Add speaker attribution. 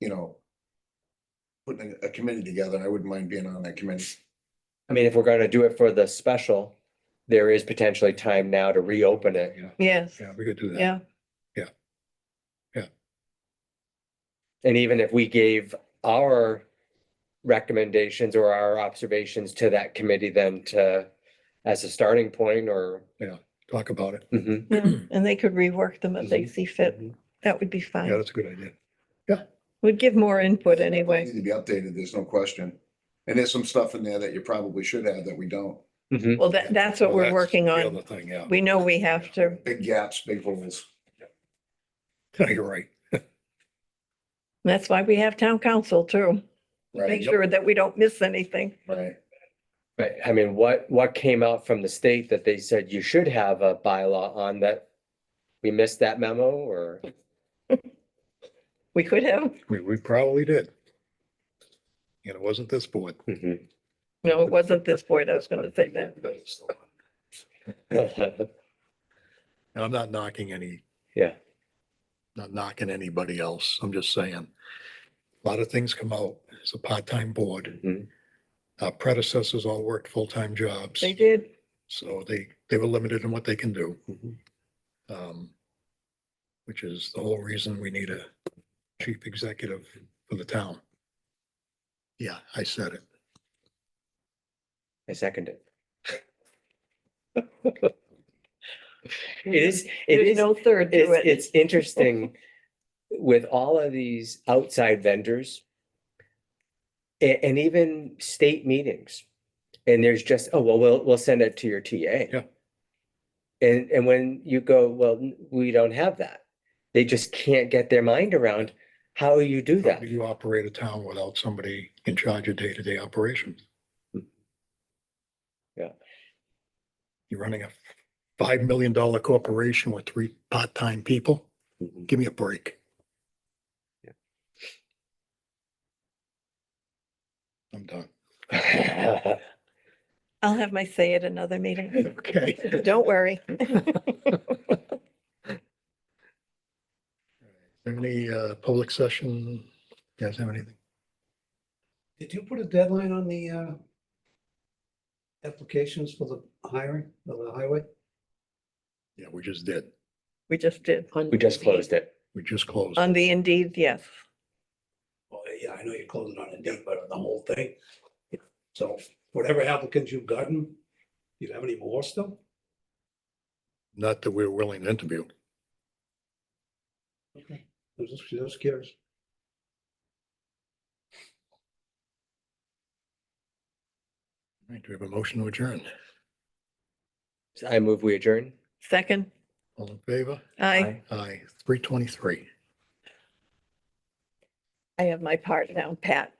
Speaker 1: you know. Putting a a committee together, I wouldn't mind being on that committee.
Speaker 2: I mean, if we're gonna do it for the special, there is potentially time now to reopen it.
Speaker 3: Yeah,
Speaker 4: Yes,
Speaker 3: yeah, we could do that.
Speaker 4: yeah,
Speaker 2: And even if we gave our recommendations or our observations to that committee then to, as a starting point or.
Speaker 3: Talk about it.
Speaker 2: Mhm,
Speaker 4: yeah. and they could rework them if they
Speaker 2: Mhm.
Speaker 4: see fit.
Speaker 2: mhm.
Speaker 4: That would be
Speaker 3: Yeah,
Speaker 4: fine.
Speaker 3: that's a good idea.
Speaker 4: Would give more input
Speaker 1: Need
Speaker 4: anyway.
Speaker 1: to be updated, there's no question. And there's some stuff in there that you probably should have that we don't.
Speaker 2: Mhm.
Speaker 4: Well, that, that's what
Speaker 3: Well,
Speaker 4: we're
Speaker 3: that's
Speaker 4: working
Speaker 3: the
Speaker 4: on.
Speaker 3: Other thing, yeah.
Speaker 4: We know we have to.
Speaker 1: Big gaps, big holes.
Speaker 3: You're right.
Speaker 4: That's why we have town council too. Make
Speaker 1: Right,
Speaker 4: sure that we don't miss anything.
Speaker 1: right.
Speaker 2: Right, I mean, what, what came out from the state that they said you should have a bylaw on that? We missed that memo or?
Speaker 4: We could have,
Speaker 3: We, we probably did. And it wasn't this board.
Speaker 2: Mhm.
Speaker 4: no, it wasn't this point. I was gonna say that.
Speaker 3: And I'm not knocking any.
Speaker 2: Yeah.
Speaker 3: Not knocking anybody else. I'm just saying. A lot of things come out. It's a part-time board.
Speaker 2: Mhm.
Speaker 3: Our predecessors all worked full-time jobs.
Speaker 4: They did.
Speaker 3: So they, they were limited in what they can do.
Speaker 2: Mhm.
Speaker 3: Um, Which is the whole reason we need a chief executive for the town. Yeah, I said it.
Speaker 2: I second it. It is, it
Speaker 4: There's
Speaker 2: is.
Speaker 4: no third to
Speaker 2: It's,
Speaker 4: it.
Speaker 2: it's interesting with all of these outside vendors a- and, even state meetings. And there's just, oh, well, we'll, we'll send it to your TA.
Speaker 3: Yeah.
Speaker 2: And, and when you go, well, n- we don't have that. They just can't get their mind around how you do
Speaker 3: How
Speaker 2: that.
Speaker 3: do you operate a town without somebody in charge of day-to-day operations?
Speaker 2: Hmm. Yeah.
Speaker 3: You're running a five million dollar corporation with three part-time people?
Speaker 2: Mhm.
Speaker 3: Give me a break.
Speaker 2: Yeah.
Speaker 3: I'm done.
Speaker 4: I'll have my say at another meeting.
Speaker 3: Okay.
Speaker 4: Don't worry.
Speaker 3: Any uh, public session? You guys have anything?
Speaker 5: Did you put a deadline on the uh applications for the hiring of the highway?
Speaker 3: Yeah, we just did.
Speaker 4: We just did.
Speaker 2: We just closed it.
Speaker 3: We just closed.
Speaker 4: On the Indeed, yes.
Speaker 5: Well, yeah, I know you're closing on a date, but on the whole thing. So whatever applicants you've gotten, do you have any more still?
Speaker 3: Not that we're willing to interview.
Speaker 5: Okay. I'm just, just curious.
Speaker 3: All right, Do we have a motion to adjourn?
Speaker 2: I move we adjourn.
Speaker 4: Second,
Speaker 3: All in favor?
Speaker 4: I,
Speaker 2: Aye.
Speaker 3: Aye, three twenty-three.
Speaker 4: I have my part now, Pat.